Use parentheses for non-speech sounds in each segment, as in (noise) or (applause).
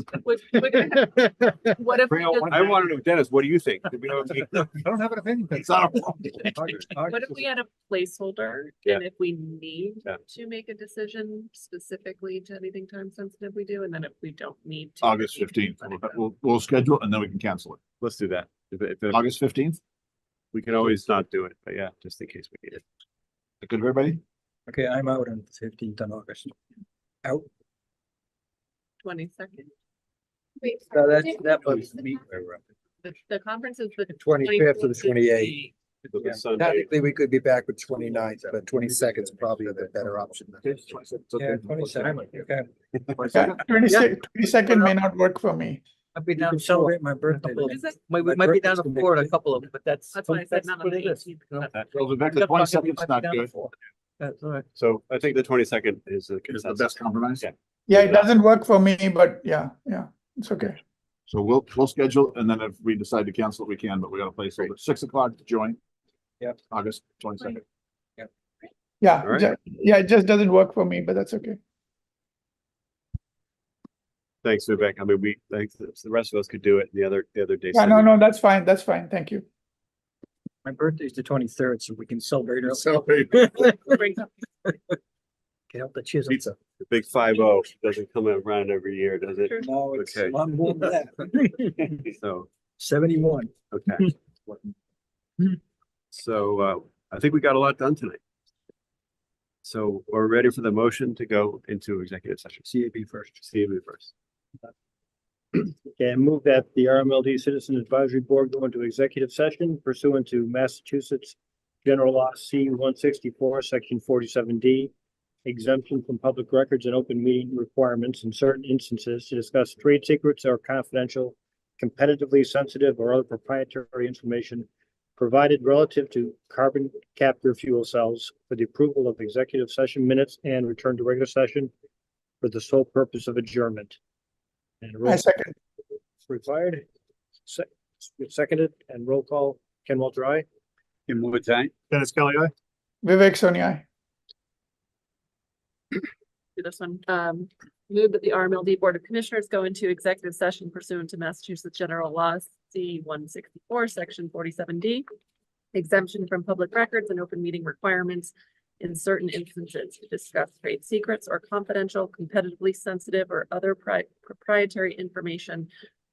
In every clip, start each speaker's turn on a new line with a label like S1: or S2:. S1: Would- would- What if, we
S2: Real-
S1: just-
S2: I want to know, Dennis, what do you think? Do we know-
S3: (laughs)
S4: I don't have an opinion.
S2: It's not a problem.
S1: (laughs) what if we had a placeholder
S2: Yeah.
S1: and if we need
S2: Yeah.
S1: to make a decision specifically to anything time sensitive we do, and then if we don't need to.
S3: August
S1: we can
S3: fifteenth,
S1: let it go.
S3: we'll, we'll schedule it and then we can cancel it.
S2: Let's do that. If, if, if-
S3: August fifteenth,
S2: we can always not do it, but yeah, just in case we need it.
S3: good, everybody?
S4: Okay, I'm out on fifteenth on August. Out,
S1: Twenty-second,
S5: Wait,
S4: so
S5: sorry,
S4: that's,
S5: did-
S4: that
S5: what
S4: was
S5: the
S4: me.
S5: con-
S1: the, the conference is the.
S4: 25th to the
S1: 24th.
S4: 28th.
S2: Look at
S4: Yeah,
S2: Sunday.
S4: Technically, we could be back with 29th, but twenty seconds probably the better option. Yeah, twenty second, okay.
S6: Twenty
S4: Yeah.
S6: second may not work for me.
S7: I've been
S4: You
S7: down
S4: can
S7: south,
S4: celebrate my birthday.
S7: couple
S1: Is it?
S7: might,
S4: My
S7: we might be
S4: birthday's
S7: down to
S4: the next
S7: Florida, a
S4: day.
S7: couple of, them, but that's.
S1: That's why I said
S7: that's
S1: not on
S7: what
S1: the
S7: it is.
S1: eighteenth.
S7: No.
S3: Well, Vivek,
S7: Yeah,
S3: the
S7: but I
S3: twenty
S7: said we
S3: second's
S7: might be
S3: not
S7: down
S3: good,
S7: for- That's all right.
S2: So I think the twenty-second is the
S3: is the best
S2: consensus.
S3: compromise.
S2: Yeah.
S6: Yeah, it doesn't work for me, but yeah, yeah, it's okay.
S3: So we'll, we'll schedule it, and then if we decide to cancel it, we can, but we gotta place it at six o'clock to join.
S4: Yep.
S3: August twenty second.
S2: All
S6: Yeah,
S2: right.
S6: ju- yeah, it just doesn't work for me, but that's okay.
S2: Thanks, Vivek. I mean, we, thanks, the rest of us could do it the other, the other day.
S6: Yeah, no, no, that's fine, that's fine, thank you.
S7: My birthday's the twenty-third, so we can celebrate early. Get out the chisel.
S3: Pizza.
S2: The Big five oh doesn't come around every year, does it?
S4: No, it's,
S2: Okay.
S4: I'm more than that.
S2: So,
S7: (laughs) Seventy-one.
S2: okay. So, uh, I think we got a lot done tonight. So we're ready for the motion to go into executive session.
S7: CAB first.
S2: Steve, you first.
S8: Okay, I move that the RMLD Citizen Advisory Board go into executive session pursuant to Massachusetts General Law C one sixty-four, section forty-seven D, exemption from public records and open meeting requirements in certain instances to discuss trade secrets or confidential, competitively sensitive or other proprietary information provided relative to carbon capture fuel cells for the approval of executive session minutes and return to regular session for the sole purpose of adjournment. And roll
S6: I second,
S8: required. Se- Seconded and roll call, Ken Walter, I.
S2: Kim Woods, aye?
S3: Dennis Kelly, aye?
S6: Vivek Sonia.
S1: do this one. Um, move that the RMLD Board of Commissioners go into executive session pursuant to Massachusetts General Law C one sixty-four, section forty-seven D. Exemption from public records and open meeting requirements in certain instances to discuss trade secrets or confidential, competitively sensitive or other pri- proprietary information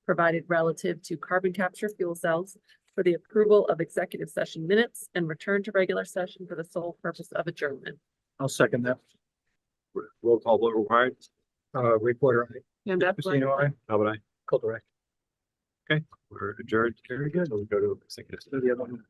S1: provided relative to carbon capture fuel cells for the approval of executive session minutes and return to regular session for the sole purpose of adjournment.
S7: I'll second that.
S2: Roll call, vote required?
S7: Uh, reporter, I,
S1: And that's what-
S7: Christina, I,
S2: How about I?
S7: Colter, I.
S2: We're adjourned. Very good. We'll go to executive. session.